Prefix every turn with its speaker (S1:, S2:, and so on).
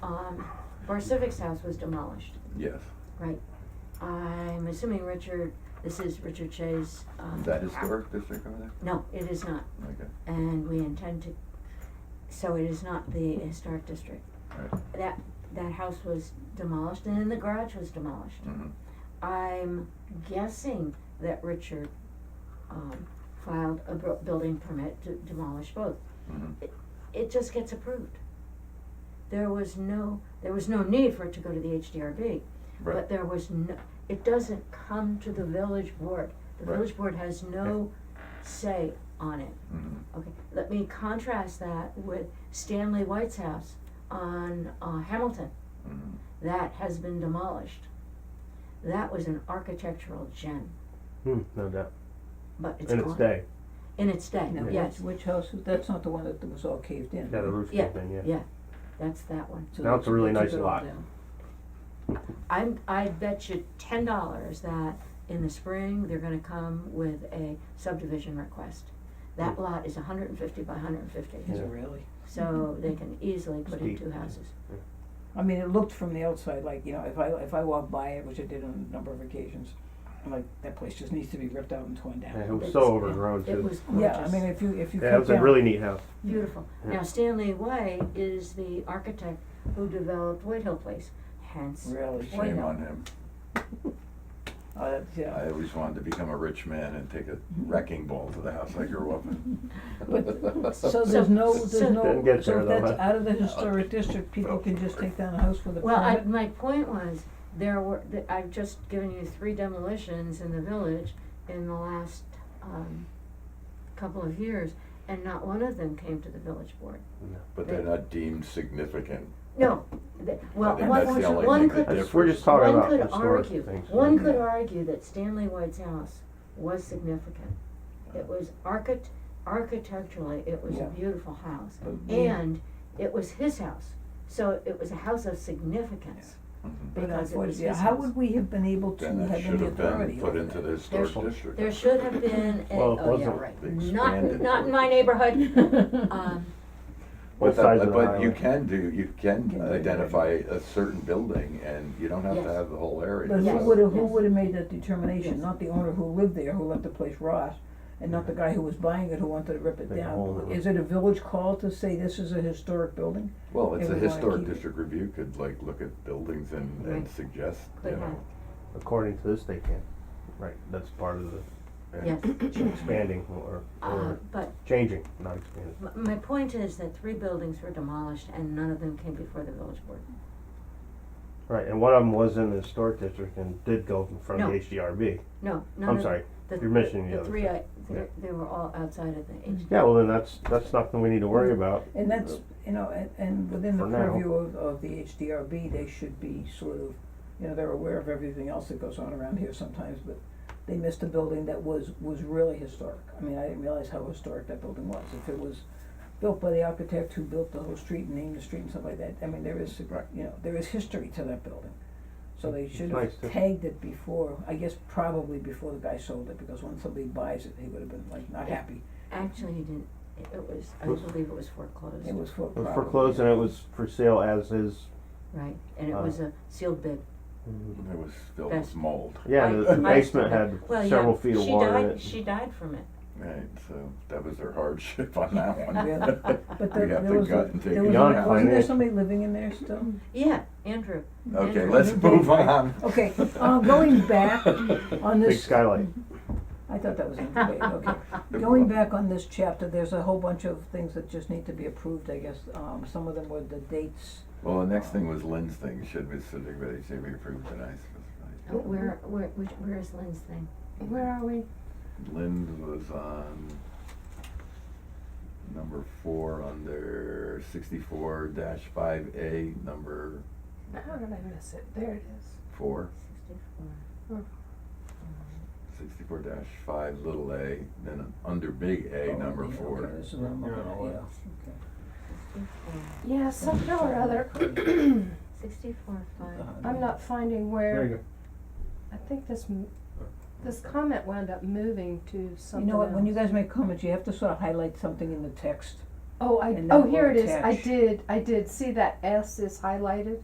S1: um, Barsivic's house was demolished,
S2: Yes,
S1: right? I'm assuming Richard, this is Richard Shay's, um.
S2: is that historic district over there?
S1: No, it is not,
S2: Okay,
S1: and we intend to, so it is not the historic district.
S2: alright,
S1: That, that house was demolished, and then the garage was demolished.
S2: mm-hmm,
S1: I'm guessing that Richard, um, filed a bu- building permit to demolish both.
S2: mm-hmm,
S1: It, it just gets approved. There was no, there was no need for it to go to the HDRB.
S2: right,
S1: But there was no, it doesn't come to the village board. The
S2: Right.
S1: village board has no say on it.
S2: mm-hmm,
S1: Okay, let me contrast that with Stanley White's house on, uh, Hamilton
S2: mm-hmm,
S1: that has been demolished. That was an architectural gem,
S3: Hmm, no doubt.
S1: but it's
S3: In
S1: gone.
S3: its day,
S1: In its day,
S4: No,
S1: yes,
S4: which, which house, was- that's not the one that was all caved in.
S3: yeah, the roof
S1: Yeah,
S3: caved in, yeah.
S1: yeah. that's that one.
S4: So
S3: Now
S4: they
S3: it's a really
S4: took
S3: nice
S4: it all
S3: lot.
S4: down.
S1: I'm, I bet you ten dollars that in the spring, they're gonna come with a subdivision request. That lot is hundred and fifty by hundred and fifty,
S4: Is it
S3: Hmm. Yeah.
S4: really?
S1: so they can easily put in
S3: Steep,
S1: two houses.
S4: I mean, it looked from the outside like, you know, if I, if I walked by it, which I did on a number of occasions, I'm like, that place just needs to be ripped out and torn down.
S3: Yeah, it was
S1: It's-
S3: so overgrown too.
S1: It was
S4: Yeah, I
S1: gorgeous,
S4: mean, if you, if you cut down.
S3: Yeah, it was a really neat house.
S1: beautiful.
S3: Yeah.
S1: Now Stanley White is the architect who developed White Hill Place, hence
S4: Really,
S1: Why
S2: shame
S1: not?
S2: on him,
S4: oh, that, yeah,
S2: I always wanted to become a rich man and take a wrecking ball to the house I grew up in.
S4: But- so there's no,
S1: so-
S4: there's no,
S3: Didn't get
S4: so
S3: there
S4: if
S3: though,
S4: that's
S3: huh?
S4: out of the historic district, people can just take down a house with a permit?
S1: Well, I, my point was, there were, th- I've just given you three demolitions in the village in the last, um, couple of years, and not one of them came to the village board.
S2: But they're not deemed significant,
S1: No, th- well,
S2: I think
S1: one,
S2: that's the only
S1: one
S2: thing
S1: could,
S2: that
S3: That's- We're just talking
S1: one
S3: about
S1: could
S3: historic
S1: argue,
S3: things.
S1: one could
S2: Mhm.
S1: argue that Stanley White's house was significant. It was archit- architecturally, it was
S4: Yeah.
S1: a beautiful house,
S4: But we-
S1: and it was his house, so it was a house of significance.
S2: Mhm.
S4: But
S1: because it was
S4: unfortunately,
S1: his
S4: how
S1: house.
S4: would we have been able to have
S2: then it
S4: any
S2: should
S4: authority
S2: have been put
S4: over
S2: into
S4: that?
S2: the historic
S3: There's-
S2: district.
S1: There should have been, a-
S3: Well, it
S1: oh yeah,
S3: wasn't.
S1: right,
S2: They
S1: not,
S2: expanded
S1: not in
S2: it.
S1: my neighborhood, um,
S2: But
S3: Both
S2: that-
S3: sides of the
S2: but you
S3: highway.
S2: can do, you can
S4: Can do it.
S2: identify a certain building and you don't have to
S1: Yes.
S2: have the whole area.
S4: But who
S1: Yes.
S2: so-
S4: would have, who
S1: Yes.
S4: would have made that
S1: Yes.
S4: determination, not the owner who lived there, who let the place rot, and not the guy who was buying it, who wanted to rip it
S3: Make a hole
S4: down?
S3: in it.
S4: Is it a village call to say this is a historic building?
S2: Well, it's a
S4: They would wanna
S2: historic
S4: keep it.
S2: district review could like look at buildings and,
S1: Right.
S2: and suggest, you
S1: could have,
S2: know.
S3: According to this, they can. Right, that's part of the
S2: yeah.
S1: yes.
S3: expanding or,
S1: Uh,
S3: or
S1: but
S3: changing, not expanding.
S1: m- my point is that three buildings were demolished and none of them came before the village board.
S3: Right, and one of them was in the historic district and did go in front of
S1: No.
S3: the HDRB.
S1: No, none of.
S3: I'm sorry.
S1: the-
S3: you're missing the other
S1: three,
S3: two.
S1: I,
S3: Yeah.
S1: they, they were all outside of the H.
S3: Yeah, well, then that's, that's nothing we need to worry
S1: Mm-hmm.
S3: about.
S4: And that's, you know, and, and within the
S3: For now.
S4: purview of, of the HDRB, they should be sort of, you know, they're aware of everything else that goes on around here sometimes, but they missed a building that was, was really historic. I mean, I didn't realize how historic that building was. If it was built by the architect who built the whole street and named the street and stuff like that, I mean, there is,
S2: Right.
S4: you know, there is history to that building. So they
S3: It's
S4: should
S3: nice
S4: have
S3: to-
S4: tagged it before, I guess probably before the guy sold it, because when somebody buys it, he would have been like not happy.
S1: Actually, he didn't, it it was, I
S3: Was-
S1: believe it was foreclosed,
S4: It was for
S3: It was foreclosed and it was for sale as is.
S1: right? And it
S3: Uh,
S1: was a sealed bid.
S2: It was filled
S1: Best.
S2: with mold,
S3: Yeah,
S1: I-
S3: the, the
S1: I-
S3: basement had
S1: well, yeah,
S3: several feet of water in it.
S1: She died, she died from it.
S2: right, so that was their hardship on that one.
S4: Really? But there,
S2: You have
S4: there
S2: to
S4: was,
S2: gut
S4: a-
S2: and take
S4: there
S2: it
S4: was,
S3: Beyond
S4: a- wasn't there
S3: financial.
S4: somebody living in there still?
S1: Yeah, Andrew,
S2: Okay,
S1: Yeah.
S2: let's move on.
S4: Okay, uh, going back on
S3: Big
S4: this, I
S3: skylight.
S4: thought that was in the debate, okay. Going back on this chapter, there's a whole bunch of things that just need to be approved, I guess, um, some of them were the dates.
S2: Well, the next thing was Lynn's thing, should we, should we, should we approve tonight?
S1: uh, where, where, which, where is Lynn's thing? Where are we?
S2: Lynn was on number four under sixty-four dash five A, number
S5: How did I miss it? There it is.
S2: four.
S1: Sixty-four.
S5: Hmm.
S2: sixty-four dash five, little a, then under big A,
S4: Oh,
S2: number
S4: okay,
S2: four.
S4: okay, this is what I'm looking at,
S1: Sixty-four,
S4: yeah,
S5: Yeah, somehow or other,
S4: Uh-huh.
S1: sixty-four, five.
S4: okay.
S5: I'm not finding
S3: There you
S5: where,
S3: go.
S5: I think this, m- this comment wound up moving to
S4: You
S5: something
S4: know what, when you
S5: else.
S4: guys make comments, you have to sort of highlight something in the text.
S5: Oh, I,
S4: and that
S5: oh,
S4: will
S5: here it is. I
S4: attach.
S5: did, I did. See that S is highlighted?